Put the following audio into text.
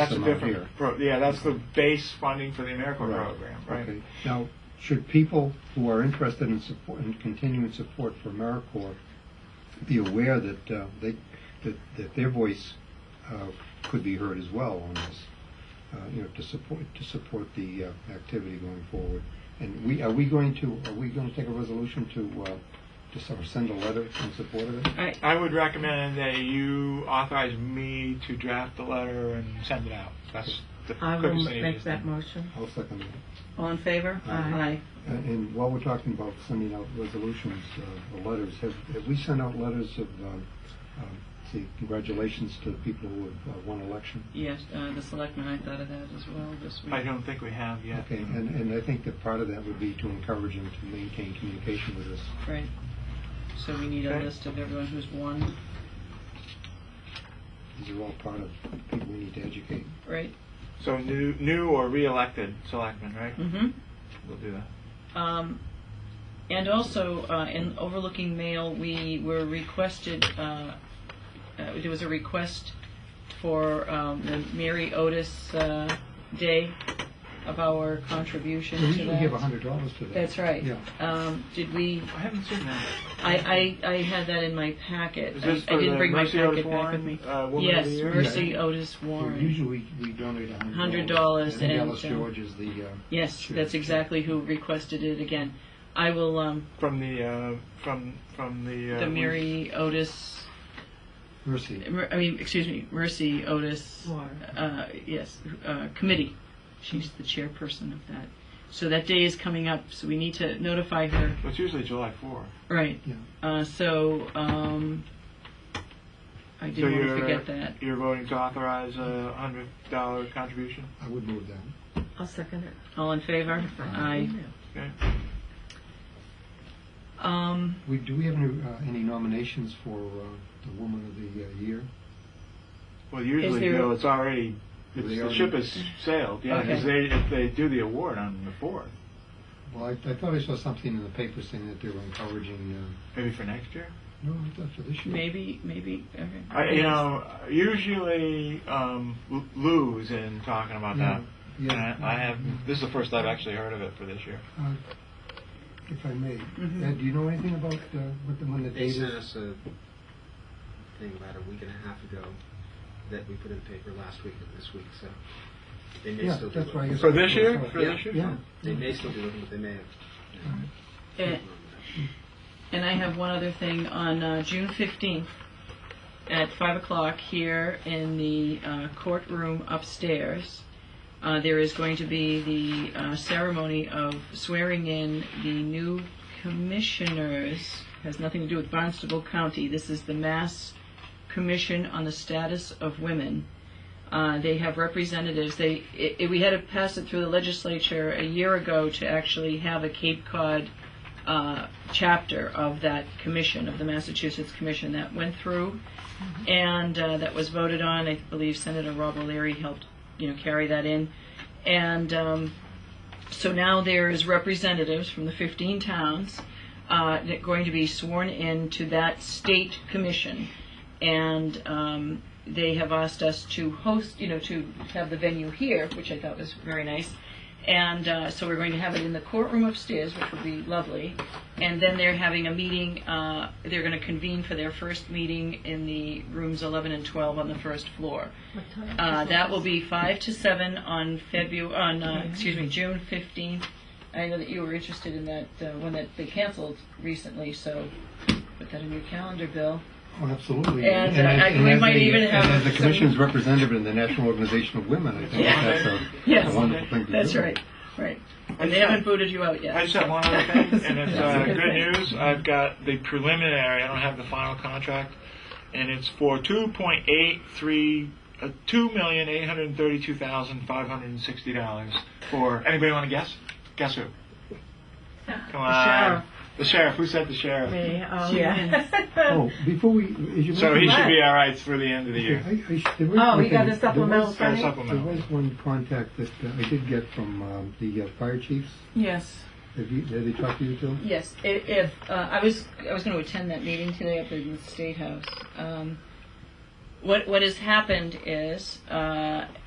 That's a amount different, here. pro- yeah, that's the base funding for the AmeriCorps Right. program, right? Okay. Now, should people who are interested in support, in continuing support for AmeriCorps be aware that uh, they, that, that their voice uh, could be heard as well on this? Uh, you know, to support, to support the uh, activity going forward. And we, are we going to, are we going to take a resolution to, uh, to sort of send a letter in support of it? Right. I would recommend that you authorize me to draft the letter and send it out. That's the I will quickest and make easiest that thing. motion. I'll second that. All in favor? Aye. And- Uh, And while we're talking about sending out resolutions, uh, or letters, have, have we sent out letters of, um, um, see, congratulations to the people who have uh, won election? Yes, uh, the selectmen, I thought of that as well this week. I don't think we have yet. Okay, and, and I think that part of that would be to encourage them to maintain communication with us. Right. So we need a Okay. list of everyone who's won, These are all part of people we need to educate. right? So new, new or re-elected selectmen, right? Mm-hmm. We'll do that. Um, and also, uh, in overlooking mail, we were requested, uh, uh, there was a request for um, the Mary Otis uh, Day of our contribution Mm-hmm. We to usually that. give a hundred dollars to that. That's right. Yeah. Um, did we? I haven't seen that. I, I, I had that in my packet. Is this I, I for didn't the bring my Mercy packet Otis back with Warren, me. uh, Woman of yes, the Year? Mercy Yeah. Otis Warren. Usually, we donate a hundred $100 dollars. and, Alice uh, George is the, uh, yes, Sure, that's sure. exactly who requested it again. I will. Um, From the, uh, from, from the. uh, the Mary Otis. Mercy. Mer- I mean, excuse me, Mercy Otis. Uh, yes, uh, committee. She's the chairperson of that. So that day is coming up, so we need to notify her. It's usually July 4. Right. Yeah. Uh, so um, I So didn't want to you're, forget that. You're voting to authorize a hundred dollar contribution? I would move that. I'll second it. All in favor? Aye. Okay. Um, We, do we have any, uh, any nominations for, uh, the Woman of the uh, Year? Well, usually, there- though, it's already, They it's, the already- ship has sailed, yeah, because Okay. they, if they do the award on the 4th, Well, I, I thought I saw something in the paper saying that they were encouraging, uh, maybe for next year? no, I thought for this year. Maybe, maybe. Okay. I, you know, usually um, L- Lou's in talking about Mm-hmm. that. Yeah, Uh, And I, I have, this is the first I've actually heard of it for this year. Uh, If I may, Mhm. Ed, do you know anything about, uh, what the, when the They date sent is? us a thing about a week and a half ago that we put in the paper last week and this week, so they may Yeah, still be that's why I looking. guess- For this year? For Yeah. this year? Yeah. They may still be looking, but they may have. And, and I have one other thing on uh, June fifteenth at five o'clock here in the uh, courtroom upstairs. Uh, there is going to be the uh, ceremony of swearing in the new commissioners. Has nothing to do with Barnstable County. This is the Mass Commission on the Status of Women. Uh, they have representatives. They i i we had to pass it through the legislature a year ago to actually have a Cape Cod uh, chapter of that commission of the Massachusetts Commission that went through, and uh, that was voted on. I believe Senator Rob O'Leary helped, you know, carry that in, and um, so now there is representatives from the 15 towns uh, that going to be sworn in to that state commission, and um, they have asked us to host, you know, to have the venue here, which I thought was very nice. And uh, so we're going to have it in the courtroom upstairs, which will be lovely. And then they're having a meeting, uh, they're going to convene for their first meeting in the rooms 11 and 12 on the first floor. Uh, that will be 5 to 7 on February, on, uh, excuse me, June 15th. I know that you were interested in that uh, one that they canceled recently, so put that in your calendar, Bill. Oh, absolutely. And, uh, as- I- we as might a- even and have As the some- commission's representative in the National Organization of Women, I think Yeah. that's a- Yes. a wonderful thing to do. That's right, right. And just they haven't have- booted you out yet. I just so. have one other thing, and it's uh, That's a good thing. news. I've got the preliminary. I don't have the final contract, and it's for two point eight three. Uh, Two million eight hundred thirty-two thousand five hundred sixty dollars for anybody want to guess? Guess who? Come on, sheriff. The sheriff. Who said the sheriff? Me, oh, yeah. yeah. Oh, before we, as you. So he mentioned- should be all right through the end of the Yeah, year. I- I s- there was Oh, one you got thing- the there supplemental was- Uh, Right. There supplemental. was one contact that uh, I did get from um, the uh, fire chiefs. Yes, Have you, did they talk to you too? yes. I- If, uh, I was, I was going to attend that meeting today up in the State House. Um, What, what has happened is, uh,